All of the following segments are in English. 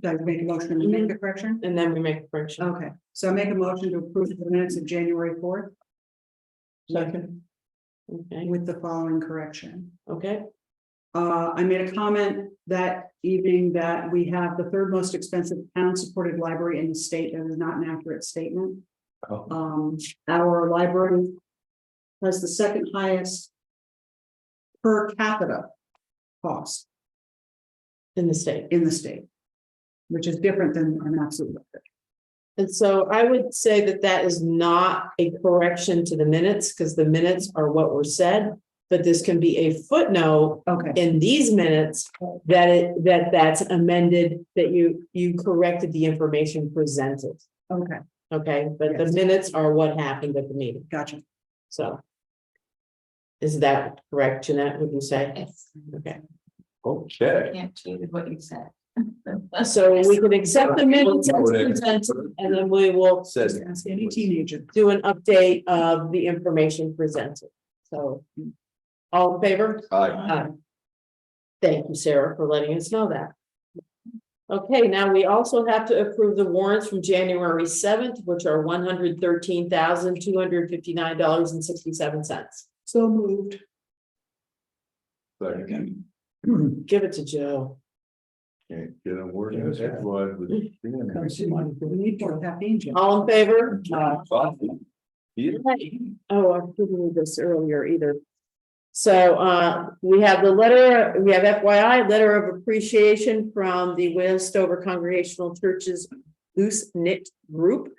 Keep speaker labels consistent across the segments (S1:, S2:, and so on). S1: guys make a motion to make the correction?
S2: and then we make a correction.
S1: Okay, so I make a motion to approve the minutes of January fourth
S2: Second. Okay,
S1: with the following correction.
S2: okay,
S1: Uh, I made a comment that evening that we have the third most expensive town-supported library in the state. That is not an accurate statement.
S3: Oh.
S1: Um, our library has the second highest per capita cost
S2: in the state.
S1: in the state, which is different than an absolute. record.
S2: And so I would say that that is not a correction to the minutes, because the minutes are what were said. But this can be a footnote
S1: Okay.
S2: in these minutes that it, that that's amended, that you, you corrected the information presented.
S1: Okay,
S2: Okay, but the
S1: Yes.
S2: minutes are what happened at the meeting,
S1: gotcha.
S2: so. Is that correct, Jeanette, would you say?
S4: Yes,
S2: Okay,
S3: Okay.
S4: can't change what you said.
S2: so we can accept the minutes as presented, and then we will
S3: Says.
S1: Ask any teenager.
S2: do an update of the information presented, so. All in favor?
S3: Aye.
S1: uh,
S2: Thank you, Sarah, for letting us know that. Okay, now we also have to approve the warrants from January seventh, which are one hundred thirteen thousand, two hundred fifty-nine dollars and sixty-seven cents.
S1: So moved.
S3: Second.
S2: Give it to Joe.
S3: Can't get a word in edgewise with
S1: We
S3: Stan.
S1: need more caffeine, Jim.
S2: All in favor?
S3: Coffee. Yeah.
S2: Oh, I didn't read this earlier either. So uh, we have the letter, we have FYI, letter of appreciation from the Westover Congregational Churches Loose Knit Group.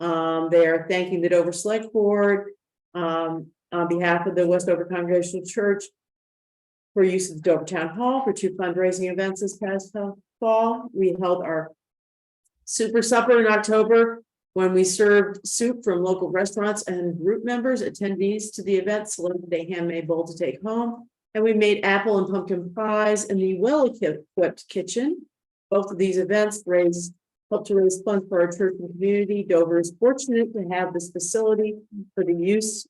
S2: Um, they are thanking the Dover Select Board um, on behalf of the Westover Congregational Church for use of the Dover Town Hall for two fundraising events this past fall. We held our super supper in October when we served soup from local restaurants and group members, attendees to the event selected a handmade bowl to take home. And we made apple and pumpkin pies in the well-equipped kitchen. Both of these events raised, helped to raise funds for our church and community. Dover is fortunate to have this facility for the use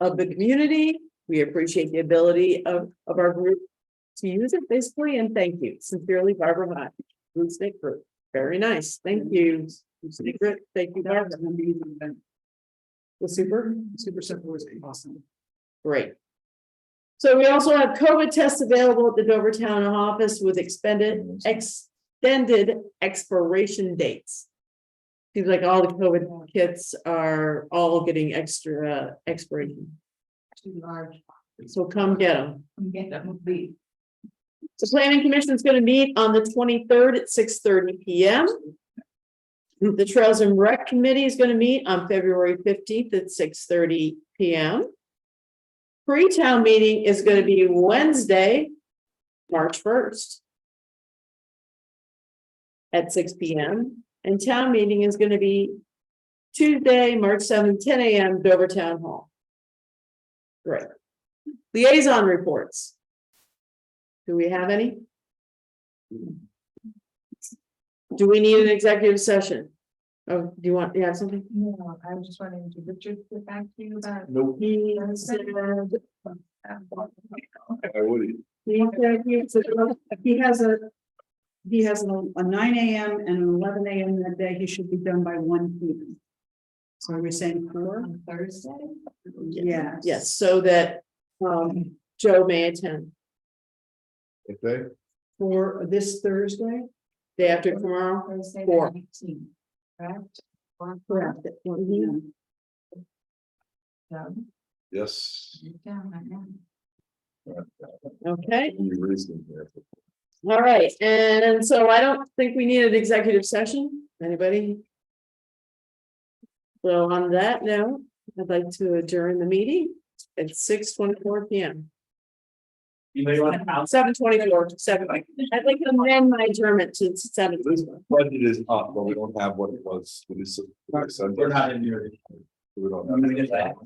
S2: of the community. We appreciate the ability of, of our group to use it basically, and thank you. Sincerely, Barbara Hot, Group Stick Group. Very nice. Thank you. Secret, thank you,
S1: That
S2: Barbara.
S1: was an amazing event.
S2: The super,
S1: Super Supper was awesome.
S2: great. So we also have COVID tests available at the Dover Town Office with expended, extended expiration dates. Seems like all the COVID kits are all getting extra uh, expiration,
S4: Too large,
S2: so come get them.
S4: I'm getting that movie.
S2: The planning commission is gonna meet on the twenty-third at six thirty P M. The Trails and Rec Committee is gonna meet on February fifteenth at six thirty P M. Pre-town meeting is gonna be Wednesday, March first. At six P M, and town meeting is gonna be Tuesday, March seventh, ten A M, Dover Town Hall. Great. Liaison reports. Do we have any? Do we need an executive session? Oh, do you want, you have something?
S4: No, I was just wondering, did Richard get back to you about?
S3: Nope.
S2: He
S1: uh,
S3: I wouldn't.
S1: He has a, he has a a nine AM and an eleven AM that day. He should be done by one PM. So are we saying four?
S4: On Thursday?
S1: Yes.
S2: Yes, so that um Joe may attend
S3: Okay.
S1: For this Thursday?
S2: day after tomorrow.
S4: Thursday
S2: Four.
S4: the nineteenth, correct? Or-
S1: Correct. at 1 p.m.
S4: No,
S3: Yes.
S4: you're down right now.
S2: Okay,
S3: You raised me there.
S2: all right. And so I don't think we need an executive session. Anybody? So on that note, I'd like to adjourn the meeting at six twenty-four P M.
S3: You may want
S2: Seven twenty-four, seven. I'd like to amend my adjournment to seven.
S3: This budget is up, but we don't have what it was. We're
S5: We're not in here.
S3: We don't. have-
S5: I'm gonna get that.